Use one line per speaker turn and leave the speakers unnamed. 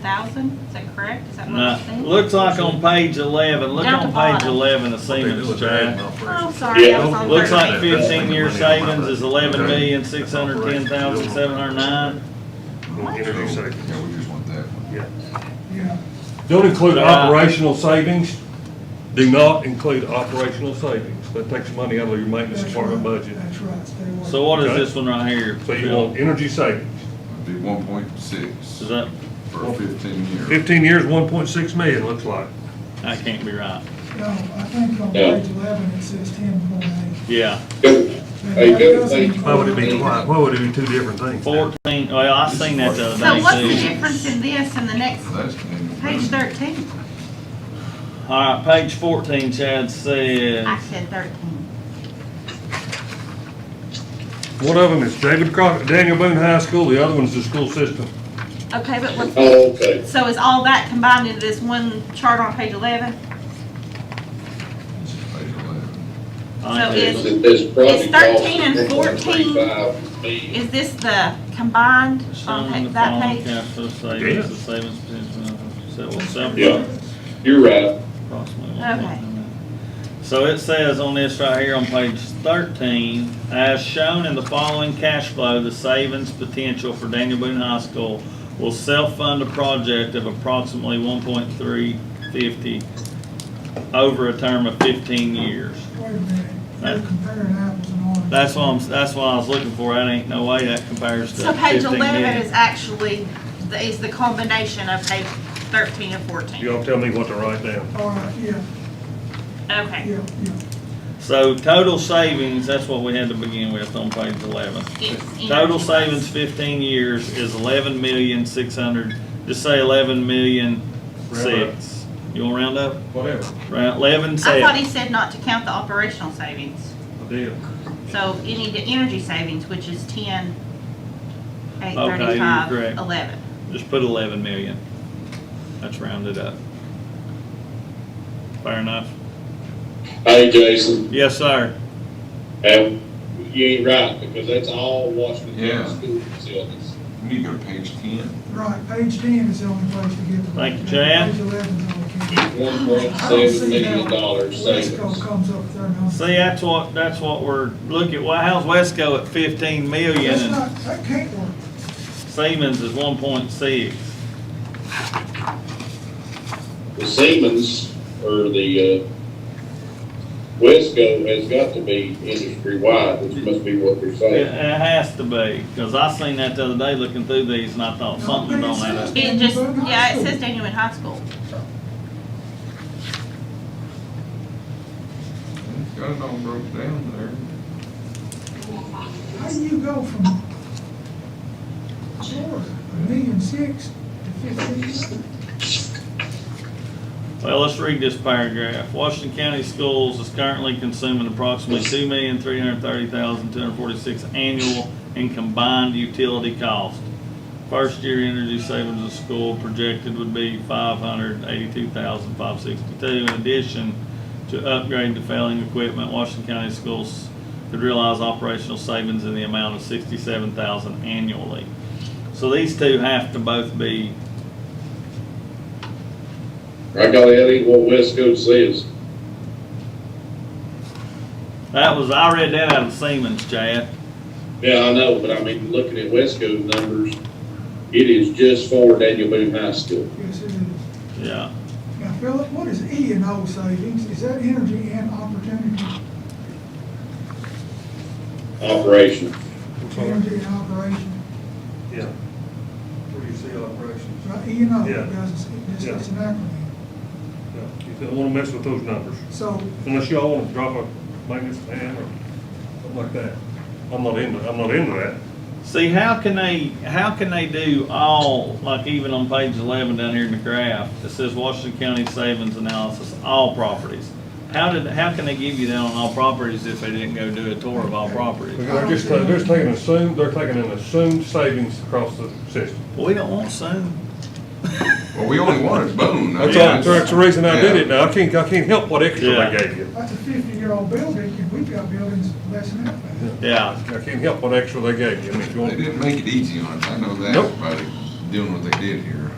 thousand, is that correct? Is that what
No,
I'm saying?
looks like on page eleven, look
Down
on
to bottom.
page eleven of
What they do
Siemens
with their
chart.
admin operations.
Oh, sorry, I was
Yeah,
on
Looks like
thirteen.
fifteen year savings is eleven
Okay.
million, six hundred ten thousand, seven hundred nine.
Energy
So,
savings.
Yeah, we just want that one.
Yeah.
Don't include
Uh,
operational savings. Do not include operational savings. That takes money out of your maintenance
That's
department
right.
budget.
That's right, stay away.
So what is
Okay.
this one right here?
So you
Phil?
want energy savings.
It'd be one point six
Is that,
for fifteen years.
Fifteen years, one point six million, looks like.
I can't be right.
No, I think on
Yeah.
page eleven, it says ten point eight.
Yeah,
Hey, good, thank you.
Why would it be twice? Why would it be two different things?
fourteen, well, I seen that the
So what's
other
the
day too.
difference in this and the next,
That's annual
page
revenue.
thirteen?
All right, page fourteen, Chad
I
says,
said thirteen.
One of them is David Crockett, Daniel Boone High School, the other one's the school system.
Okay, but what's,
Oh, okay.
so is all that combined into this one chart on page eleven?
This is page eleven.
I
So
ain't
is-
doing
This- this project
It's 13
cost
and 14.
1.35 million.
Is this the combined
it.
on
Shown
pa-
the
that
following
page?
capital savings, the savings potential, so we'll separate
Yeah. You're right.
approximately
Okay.
1.9. So it says on this right here on page thirteen, as shown in the following cash flow, the savings potential for Daniel Boone High School will self-fund a project of approximately one point three fifty over a term of fifteen years.
Wait a minute, you're
That-
comparing apples and oranges.
That's what I'm, that's what I was looking for. That ain't no way that compares to
So page
fifteen
eleven
million.
is actually, the- is the combination of page thirteen and fourteen?
Y'all tell me what to write down.
All right, yeah,
Okay.
yeah, yeah.
So total savings, that's what we had to begin with on page eleven.
It's in-
Total savings fifteen years is eleven million six hundred, just say eleven million six. You wanna round up?
Whatever.
Round, eleven
I thought he
seven.
said not to count the operational savings.
I did.
So any, the energy savings, which is ten, eight
you're
thirty-five,
correct.
eleven.
Just put eleven million. That's rounded up. Fair enough.
Hey, Jason,
Yes, sir.
and you ain't right, because that's all Washington
Yeah.
County school facilities.
We need to go to page ten.
Right, page ten is the only place to get. the-
Thank you, Chad.
Page eleven's all we can.
One point
I don't
seven
see
million
how
dollars savings.
Wesco comes up there and.
See, that's what, that's what we're, look at, well, how's Wesco at fifteen million
That's
and
not, that can't work.
Siemens is one point six?
The Siemens or the, uh, Wesco has got to be industry-wide, which must be what they're
It, it
saying.
has to be, cause I seen that the other day looking through these and I thought something don't add up.
It just, yeah, it says Daniel in high school.
Got it all broke down there.
How do you go from Florida, a million six to fifteen?
Well, let's read this paragraph. Washington County Schools is currently consuming approximately two million, three hundred thirty thousand, two hundred forty-six annual in combined utility cost. First year energy savings of school projected would be five hundred eighty-two thousand, five sixty-two. In addition to upgrade to failing equipment, Washington County Schools could realize operational savings in the amount of sixty-seven thousand annually. So these two have to both be
I got that ain't what Wesco says.
That was, I read that out of Siemens, Chad.
Yeah, I know, but I mean, looking at Wesco's numbers, it is just for Daniel Boone High School.
Yes, it is.
Yeah.
Now, Philip, what is E and O savings? Is that energy and opportunity?
operation.
Energy and operation,
Yeah. Where do you see operations?
right, E and O,
Yeah.
guys, it's, it's- it's an acronym.
Yeah. You don't wanna mess with those numbers.
So,
Unless y'all wanna drop a maintenance plan or something like that. I'm not into, I'm not into that.
See, how can they, how can they do all, like even on page eleven down here in the graph, it says Washington County Savings Analysis, all properties. How did, how can they give you that on all properties if they didn't go do a tour of all properties?
They're just, they're just taking assumed, they're taking an assumed savings across the system.
We don't want soon.
Well, we only wanted Boone. I
That's,
mean,
all- that's the reason I did it now. I can't, I can't help what extra
Yeah.
they gave you.
that's a fifty-year-old building, and we've got buildings less than that.
Yeah.
I can't help what extra they gave you. I mean, if you want
They didn't make it easy on us, I know that,
Nope.
by doing what they did here.